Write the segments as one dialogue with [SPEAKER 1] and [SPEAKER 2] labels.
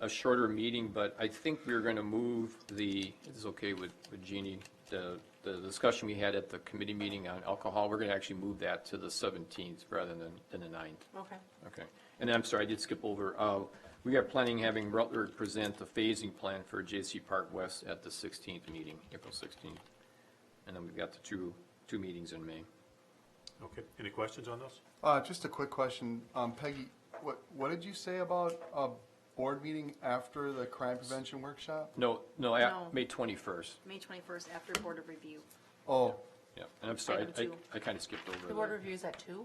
[SPEAKER 1] a shorter meeting, but I think we're going to move the, it's okay with, with Jeannie, the, the discussion we had at the committee meeting on alcohol, we're going to actually move that to the 17th rather than, than the 9th.
[SPEAKER 2] Okay.
[SPEAKER 1] Okay. And I'm sorry, I did skip over. Uh, We are planning having Rutler present the phasing plan for J.C. Park West at the 16th meeting, April 16th. And then we've got the two, two meetings in May.
[SPEAKER 3] Okay, any questions on those?
[SPEAKER 4] Uh, just a quick question. Um, Peggy, what, what did you say about a board meeting after the crime prevention workshop?
[SPEAKER 1] No, no,
[SPEAKER 2] No.
[SPEAKER 1] at May 21st.
[SPEAKER 2] May 21st after Board of Review.
[SPEAKER 4] Oh,
[SPEAKER 1] Yeah, and I'm sorry,
[SPEAKER 2] Item
[SPEAKER 1] I,
[SPEAKER 2] two.
[SPEAKER 1] I kind of skipped over.
[SPEAKER 5] The
[SPEAKER 1] that.
[SPEAKER 5] board review is at two?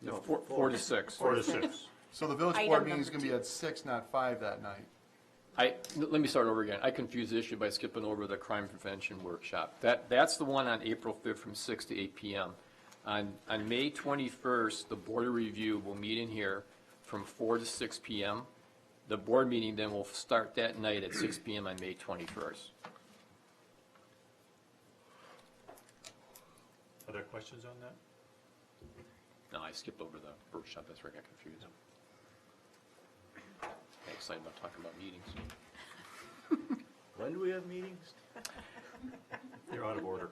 [SPEAKER 1] No, Four, four to six.
[SPEAKER 3] Four to six.
[SPEAKER 4] so the village
[SPEAKER 2] Item
[SPEAKER 4] board meeting is
[SPEAKER 2] number
[SPEAKER 4] gonna
[SPEAKER 2] two.
[SPEAKER 4] be at six, not five that night.
[SPEAKER 1] I, let me start over again. I confused the issue by skipping over the crime prevention workshop. That, that's the one on April 5th from 6 to 8 PM. On, on May 21st, the board of review will meet in here from 4 to 6 PM. The board meeting then will start that night at 6 PM on May 21st.
[SPEAKER 3] Are there questions on that?
[SPEAKER 1] No, I skipped over the workshop, that's where I got confused. Got Excited about talking about meetings.
[SPEAKER 6] When do we have meetings?
[SPEAKER 3] You're out of order.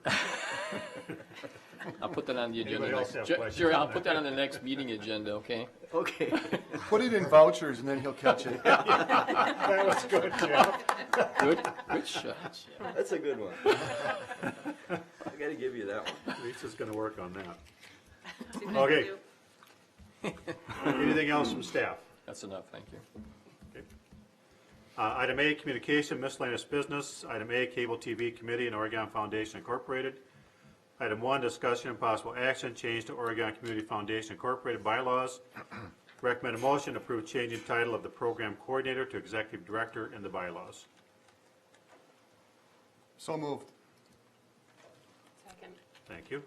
[SPEAKER 1] I'll put that on the agenda.
[SPEAKER 3] Anybody else
[SPEAKER 1] next-
[SPEAKER 3] have
[SPEAKER 1] Jer-
[SPEAKER 3] questions
[SPEAKER 1] Jerry,
[SPEAKER 3] on
[SPEAKER 1] I'll
[SPEAKER 3] that?
[SPEAKER 1] put that on the next meeting agenda, okay?
[SPEAKER 6] Okay.
[SPEAKER 4] Put it in vouchers and then he'll catch it.
[SPEAKER 3] That was good, Jeff.
[SPEAKER 1] Good, good shot.
[SPEAKER 6] That's a good one. I gotta give you that one.
[SPEAKER 3] Lisa's gonna work on that.
[SPEAKER 2] See what I can
[SPEAKER 3] Okay.
[SPEAKER 2] do.
[SPEAKER 3] Anything else from staff?
[SPEAKER 1] That's enough, thank you.
[SPEAKER 3] Okay. Uh, Item A, communication, miscellaneous business. Item A, cable TV committee and Oregon Foundation Incorporated. Item one, discussion and possible action, change to Oregon Community Foundation Incorporated bylaws. Recommended motion, approve change in title of the program coordinator to executive director in the bylaws.
[SPEAKER 4] So moved.
[SPEAKER 5] Second.
[SPEAKER 3] Thank you.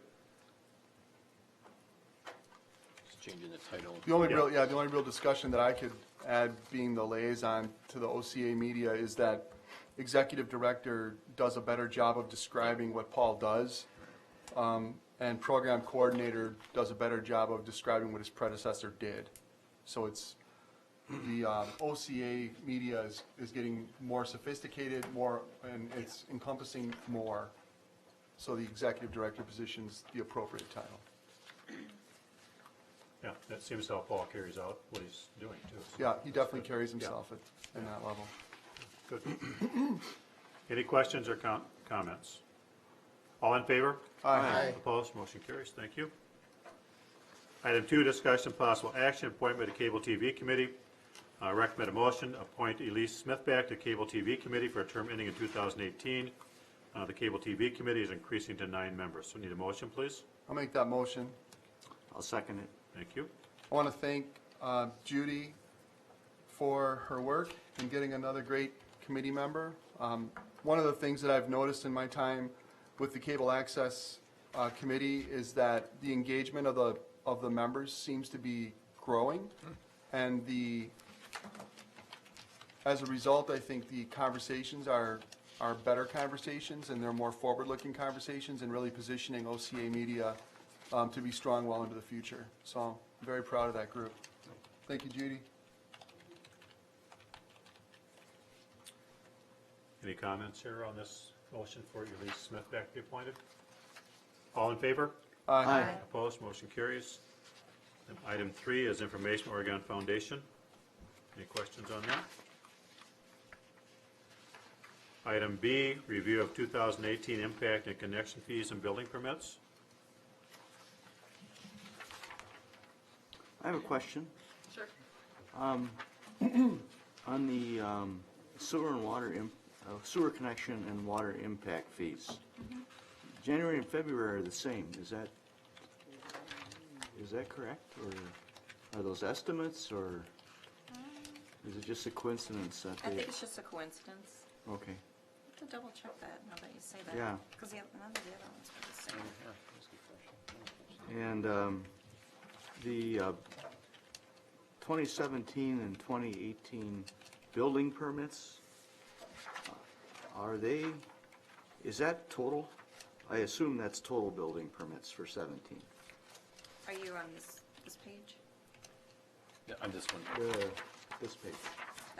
[SPEAKER 1] Just changing the title.
[SPEAKER 4] The only
[SPEAKER 3] Yeah.
[SPEAKER 4] real, yeah, the only real discussion that I could add, being the liaison to the OCA media, is that executive director does a better job of describing what Paul does. um, And program coordinator does a better job of describing what his predecessor did. So it's, the um, OCA media is, is getting more sophisticated, more, and it's encompassing more. So the executive director position's the appropriate title.
[SPEAKER 3] Yeah, that seems how Paul carries out what he's doing, too.
[SPEAKER 4] Yeah, he definitely carries himself at, in that level.
[SPEAKER 3] Good. Any questions or com- comments? All in favor?
[SPEAKER 4] Aye.
[SPEAKER 3] Opposed, motion carries, thank you. Item two, discussion and possible action, appointment to Cable TV Committee. Uh, Recommend a motion, appoint Elise Smith back to Cable TV Committee for a term ending in 2018. Uh, The Cable TV Committee is increasing to nine members, so need a motion, please?
[SPEAKER 4] I'll make that motion.
[SPEAKER 6] I'll second it.
[SPEAKER 3] Thank you.
[SPEAKER 4] I want to thank uh, Judy for her work in getting another great committee member. Um, One of the things that I've noticed in my time with the Cable Access uh, Committee is that the engagement of the, of the members seems to be growing, and the, as a result, I think the conversations are, are better conversations, and they're more forward-looking conversations, and really positioning OCA Media um, to be strong well into the future. So I'm very proud of that group. Thank you, Judy.
[SPEAKER 3] Any comments here on this motion for Elise Smith back to be appointed? All in favor?
[SPEAKER 4] Uh,
[SPEAKER 6] Aye.
[SPEAKER 3] Opposed, motion carries. And Item three is information Oregon Foundation. Any questions on that? Item B, review of 2018 impact and connection fees and building permits.
[SPEAKER 6] I have a question. Um,
[SPEAKER 2] Sure.
[SPEAKER 6] On the um, sewer and water, im- uh, sewer connection and water impact fees.
[SPEAKER 7] Mm-hmm.
[SPEAKER 6] January and February are the same. Is that, is that correct? Or are those estimates or is it just a coincidence that
[SPEAKER 7] Um, I
[SPEAKER 6] they?
[SPEAKER 7] think it's just a coincidence.
[SPEAKER 6] Okay,
[SPEAKER 7] I have to double check that now that you say that.
[SPEAKER 6] Yeah.
[SPEAKER 7] Because none of the other ones were the same.
[SPEAKER 6] and um, the uh, 2017 and 2018 building permits, uh, are they, is that total? I assume that's total building permits for 17.
[SPEAKER 7] Are you on this, this page?
[SPEAKER 1] Yeah, On this one.
[SPEAKER 6] The, this page.